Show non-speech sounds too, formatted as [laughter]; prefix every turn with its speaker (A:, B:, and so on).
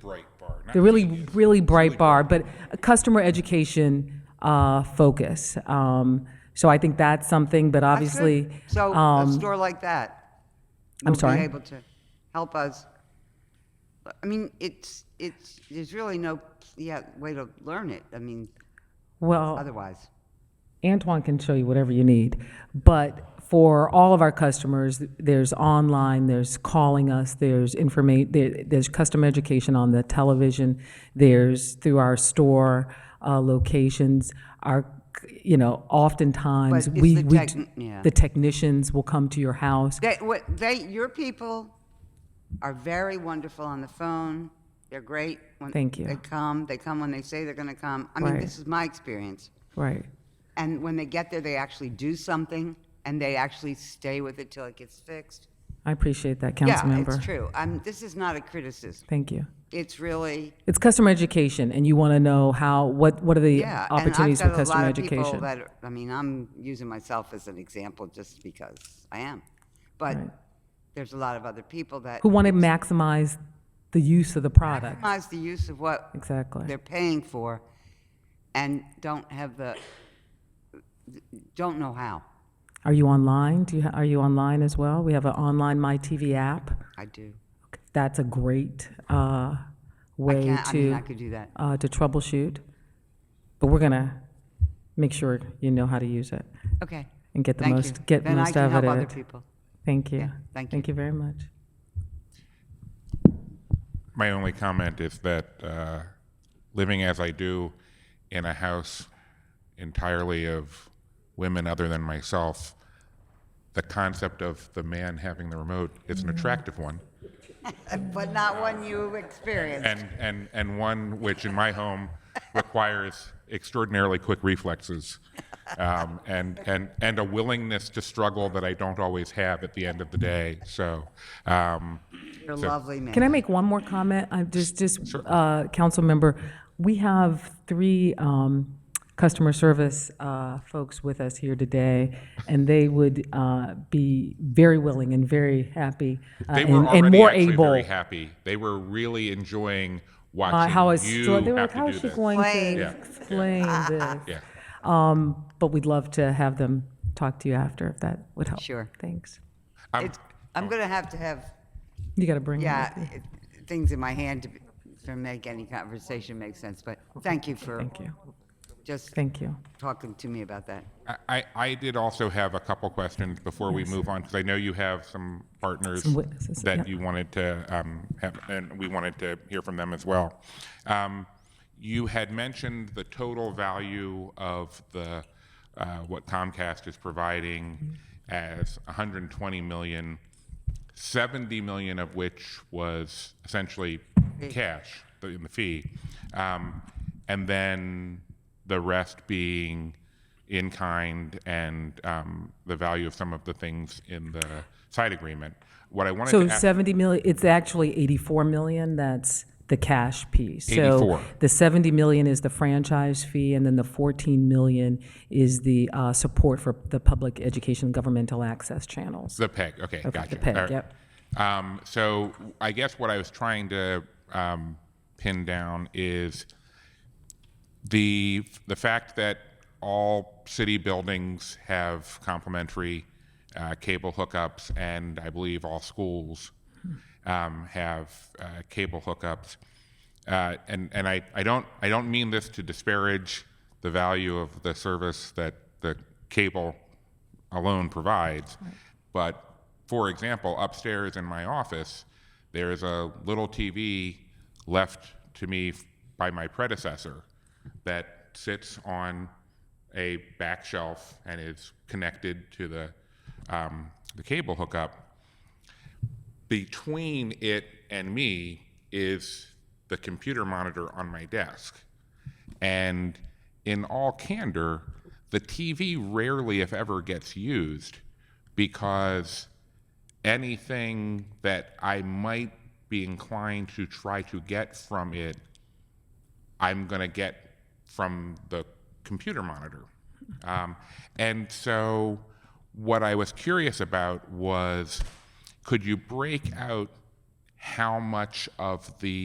A: bright bar. Not
B: The really,
A: genius.
B: really bright bar, but a customer education uh, focus. Um, So I think that's something, but
C: That's good.
B: obviously,
C: So a
B: um,
C: store like that
B: I'm
C: will
B: sorry?
C: be able to help us. I mean, it's, it's, there's really no, yeah, way to learn it. I mean,
B: well,
C: otherwise.
B: Antoine can show you whatever you need. But for all of our customers, there's online, there's calling us, there's informa, there, there's customer education on the television, there's through our store uh, locations, our, you know, oftentimes,
C: But it's
B: we,
C: the
B: we,
C: techn-
B: d-
C: yeah.
B: the technicians will come to your house.
C: They, what, they, your people are very wonderful on the phone. They're great. When
B: Thank you.
C: They come, they come when they say they're going to come. I mean,
B: Right.
C: this is my experience.
B: Right.
C: And when they get there, they actually do something and they actually stay with it till it gets fixed.
B: I appreciate that,
C: Yeah,
B: Councilmember.
C: it's true. I'm, this is not a criticism.
B: Thank you.
C: It's really,
B: It's customer education, and you want to know how, what, what are the
C: yeah. and I've
B: opportunities for
C: got a
B: customer
C: lot of people
B: education?
C: that are- I mean, I'm using myself as an example just because I am. But
B: Right.
C: there's a lot of other people that
B: Who want to maximize the use of the product?
C: minimize the use of what
B: Exactly.
C: they're paying for and don't have the, don't know how.
B: Are you online? Do you, ha- are you online as well? We have an online My TV app.
C: I do.
B: That's a great uh,
C: I
B: way
C: can't, I mean, I
B: to,
C: could do that.
B: uh, to troubleshoot. But we're going to make sure you know how to use it
C: Okay.
B: and get the
C: Thank you.
B: most, get
C: Then I
B: most
C: can
B: out
C: help
B: of
C: other
B: it.
C: people.
B: Thank you.
C: Yeah, thank you.
B: Thank you very much.
A: My only comment is that uh, living as I do in a house entirely of women other than myself, the concept of the man having the remote is an attractive one,
C: But not one you experienced.
A: and and and one which in my home requires extraordinarily quick reflexes. Um, and, and, and a willingness to struggle that I don't always have at the end of the day. So, um,
C: You're a lovely man.
B: Can I make one more comment? I just, just, uh, council member, we have three, um, customer service, uh, folks with us here today, and they would, uh, be very willing and very happy. uh,
A: They
B: and-
A: were
B: and
A: already
B: more
A: actually
B: able,
A: very happy. They were really enjoying watching
B: Uh, how is,
A: you
B: they were like,
A: have
B: how
A: to
B: is
A: do
B: she
A: this.
B: going
C: Explain.
B: to
A: Yeah.
B: explain
C: [laughs]
B: this?
A: Yeah.
B: Um, but we'd love to have them talk to you after, if that would help.
C: Sure.
B: Thanks.
A: I'm,
C: It's, I'm going to have to have,
B: You gotta bring it
C: yeah,
B: with you.
C: it- things in my hand to, be- to make any conversation make sense. But thank you for
B: Thank you,
C: just
B: thank you.
C: talking to me about that.
A: I- I, I did also have a couple questions before we move on because I know you have some partners
B: Some witnesses,
A: that
B: yep.
A: you wanted to um, have, and we wanted to hear from them as well. Um, you had mentioned the total value of the uh, what Comcast is providing as 120 million, 70 million of which was essentially cash the- in the fee, um, and then the rest being in kind and um, the value of some of the things in the side agreement. What I wanted
B: So
A: to ask,
B: 70 million, it's actually 84 million, that's the cash piece.
A: 84.
B: So the 70 million is the franchise fee, and then the 14 million is the uh, support for the public education governmental access channels.
A: the peg. Okay, gotcha.
B: the peg,
A: All right.
B: yep.
A: Um, so I guess what I was trying to um, pin down is the the fact that all city buildings have complimentary uh, cable hookups, and I believe all schools
B: Hmm.
A: um, have uh, cable hookups. Uh, and and I, I don't I don't mean this to disparage the value of the service that the cable alone provides, but for example, upstairs in my office, there is a little TV left to me f- by my predecessor that sits on a back shelf and is connected to the um, the cable hookup between it and me is the computer monitor on my desk. And in all candor, the TV rarely, if ever, gets used because anything that I might be inclined to try to get from it, I'm going to get from the computer monitor. Um, and so, what I was curious about was could you break out how much of the